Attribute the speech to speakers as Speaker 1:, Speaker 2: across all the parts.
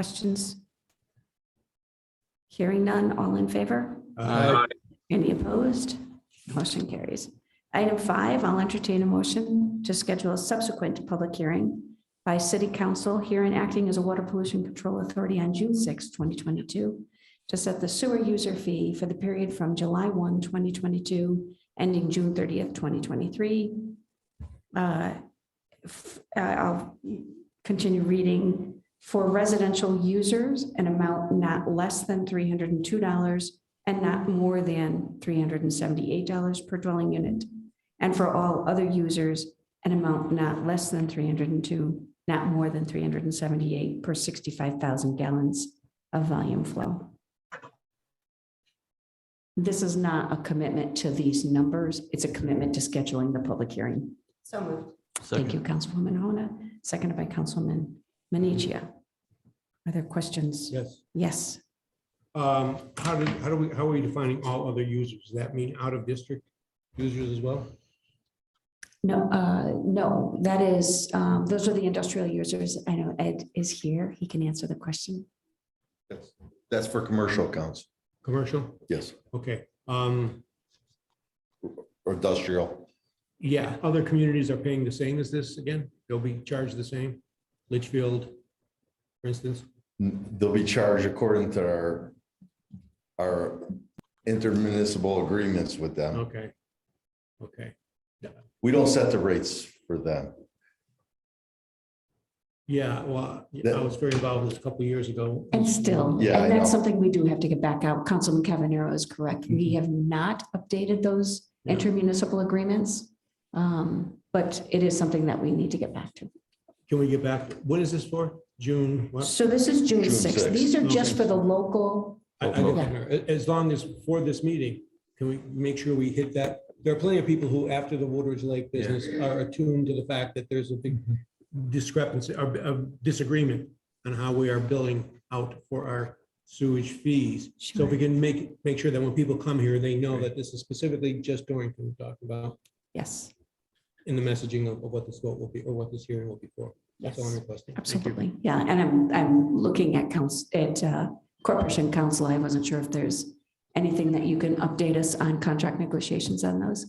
Speaker 1: Questions? Hearing none, all in favor?
Speaker 2: Aye.
Speaker 1: Any opposed? Motion carries. Item five, I'll entertain a motion to schedule a subsequent public hearing by city council here and acting as a water pollution control authority on June 6, 2022, to set the sewer user fee for the period from July 1, 2022, ending June 30th, 2023. Uh, f- uh, I'll continue reading. For residential users, an amount not less than $302 and not more than $378 per dwelling unit. And for all other users, an amount not less than 302, not more than 378 per 65,000 gallons of volume flow. This is not a commitment to these numbers. It's a commitment to scheduling the public hearing.
Speaker 3: So moved.
Speaker 1: Thank you, Councilwoman Hona, seconded by Councilman Menichia. Are there questions?
Speaker 2: Yes.
Speaker 1: Yes.
Speaker 2: Um, how did, how do we, how are we defining all other users? Does that mean out of district users as well?
Speaker 1: No, uh, no, that is, um, those are the industrial users. I know Ed is here. He can answer the question.
Speaker 4: That's for commercial accounts,
Speaker 2: Commercial?
Speaker 4: yes,
Speaker 2: Okay, um,
Speaker 4: or industrial.
Speaker 2: yeah, other communities are paying the same as this again? They'll be charged the same? Litchfield, for instance?
Speaker 4: They'll be charged according to our, our intermunicipal agreements with them.
Speaker 2: Okay. Okay,
Speaker 4: We don't set the rates for them.
Speaker 2: yeah, well, I was very involved with this a couple of years ago.
Speaker 1: And still,
Speaker 4: Yeah, I
Speaker 1: and that's
Speaker 4: know.
Speaker 1: something we do have to get back out. Councilman Cavanero is correct. We have not updated those
Speaker 2: Yeah.
Speaker 1: intermunicipal agreements. Um, but it is something that we need to get back to.
Speaker 2: Can we get back, what is this for? June? what?
Speaker 1: So this is June
Speaker 4: June
Speaker 1: sixth.
Speaker 4: 6th.
Speaker 1: These are just
Speaker 2: Okay.
Speaker 1: for the local,
Speaker 2: I- I don't know. A- As long as for this meeting, can we make sure we hit that? There are plenty of people who, after the Woodridge Lake business, are attuned to the fact that there's a big discrepancy, or a disagreement on how we are billing out for our sewage fees. So if we can make, make sure that when people come here, they know that this is specifically just Dorrington we're talking about
Speaker 1: yes,
Speaker 2: in the messaging of of what this vote will be, or what this hearing will be for. That's all I'm
Speaker 1: Yes.
Speaker 2: requesting. Thank you.
Speaker 1: absolutely. Yeah, and I'm, I'm looking at council, at, uh, corporation council. I wasn't sure if there's anything that you can update us on contract negotiations on those.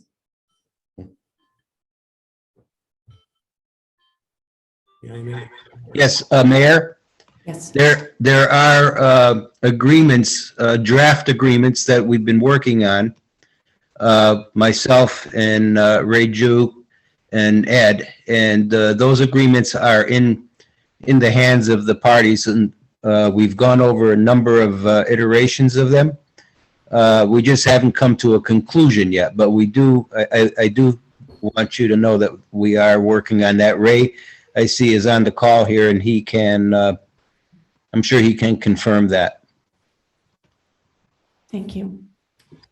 Speaker 2: Yeah, I mean,
Speaker 5: Yes, uh, Mayor,
Speaker 1: Yes,
Speaker 5: there, there are uh, agreements, uh, draft agreements that we've been working on. Uh, Myself and uh, Ray Ju and Ed, and uh, those agreements are in, in the hands of the parties. And uh, we've gone over a number of uh, iterations of them. Uh, We just haven't come to a conclusion yet, but we do, I, I- I do want you to know that we are working on that. Ray, I see is on the call here and he can, uh, I'm sure he can confirm that.
Speaker 1: thank you.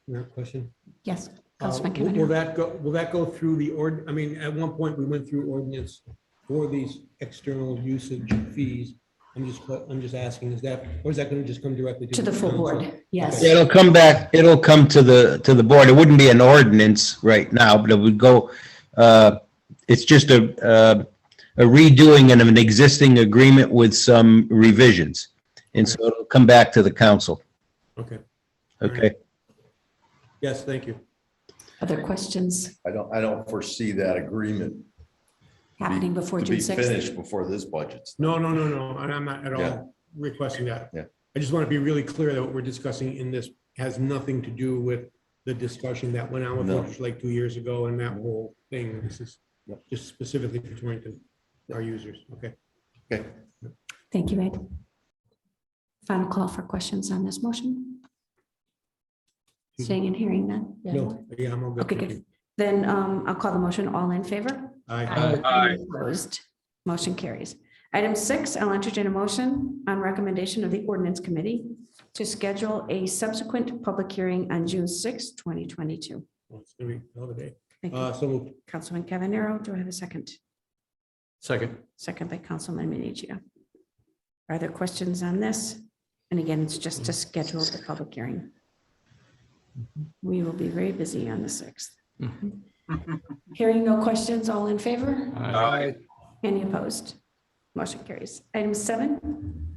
Speaker 2: your question?
Speaker 1: Yes.
Speaker 2: Uh,
Speaker 1: Councilman
Speaker 2: Will will
Speaker 1: Cavanero.
Speaker 2: that go, will that go through the ord, I mean, at one point, we went through ordinance for these external usage fees. I'm just, que- I'm just asking, is that, or is that going to just come directly?
Speaker 1: To the full
Speaker 2: council?
Speaker 1: board, yes.
Speaker 5: It'll come back, it'll come to the, to the board. It wouldn't be an ordinance right now, but it would go, uh, it's just a, uh, a redoing of an existing agreement with some revisions. And so it'll come back to the council,
Speaker 2: Okay,
Speaker 5: okay?
Speaker 2: yes, thank you.
Speaker 1: Other questions
Speaker 4: I don't, I don't foresee that agreement
Speaker 1: happening before
Speaker 4: to
Speaker 1: June
Speaker 4: be
Speaker 1: 6th?
Speaker 4: finished before this budget's.
Speaker 2: No, no, no, no, I- I'm not at
Speaker 4: Yeah.
Speaker 2: all requesting that.
Speaker 4: Yeah.
Speaker 2: I just want to be really clear that what we're discussing in this has nothing to do with the discussion that went on with
Speaker 4: No.
Speaker 2: Rogers Lake two years ago and that whole thing. This is
Speaker 4: Yep.
Speaker 2: just specifically for Torrington, our users, okay?
Speaker 4: Okay,
Speaker 1: Thank you, Ed. Final call for questions on this motion? Seeing and hearing none?
Speaker 2: Hmm. No, yeah, I'm all good.
Speaker 1: Okay,
Speaker 2: thank
Speaker 1: good. Then um, I'll call the motion. All in favor?
Speaker 2: you. Aye.
Speaker 1: Any Opposed. Motion carries. Item six, I'll entertain a motion on recommendation of the ordinance committee to schedule a subsequent public hearing on June 6, 2022.
Speaker 2: Well, It's gonna be a hell of a day.
Speaker 1: Thank you.
Speaker 2: Uh, so moved.
Speaker 1: Councilman Cavanero, do I have a second?
Speaker 2: Second.
Speaker 1: Second by Councilman Minichia. Are there questions on this? And again, it's just to schedule the public hearing. We will be very busy on the 6th. Hearing no questions, all in favor? Any opposed? Motion carries. Item seven,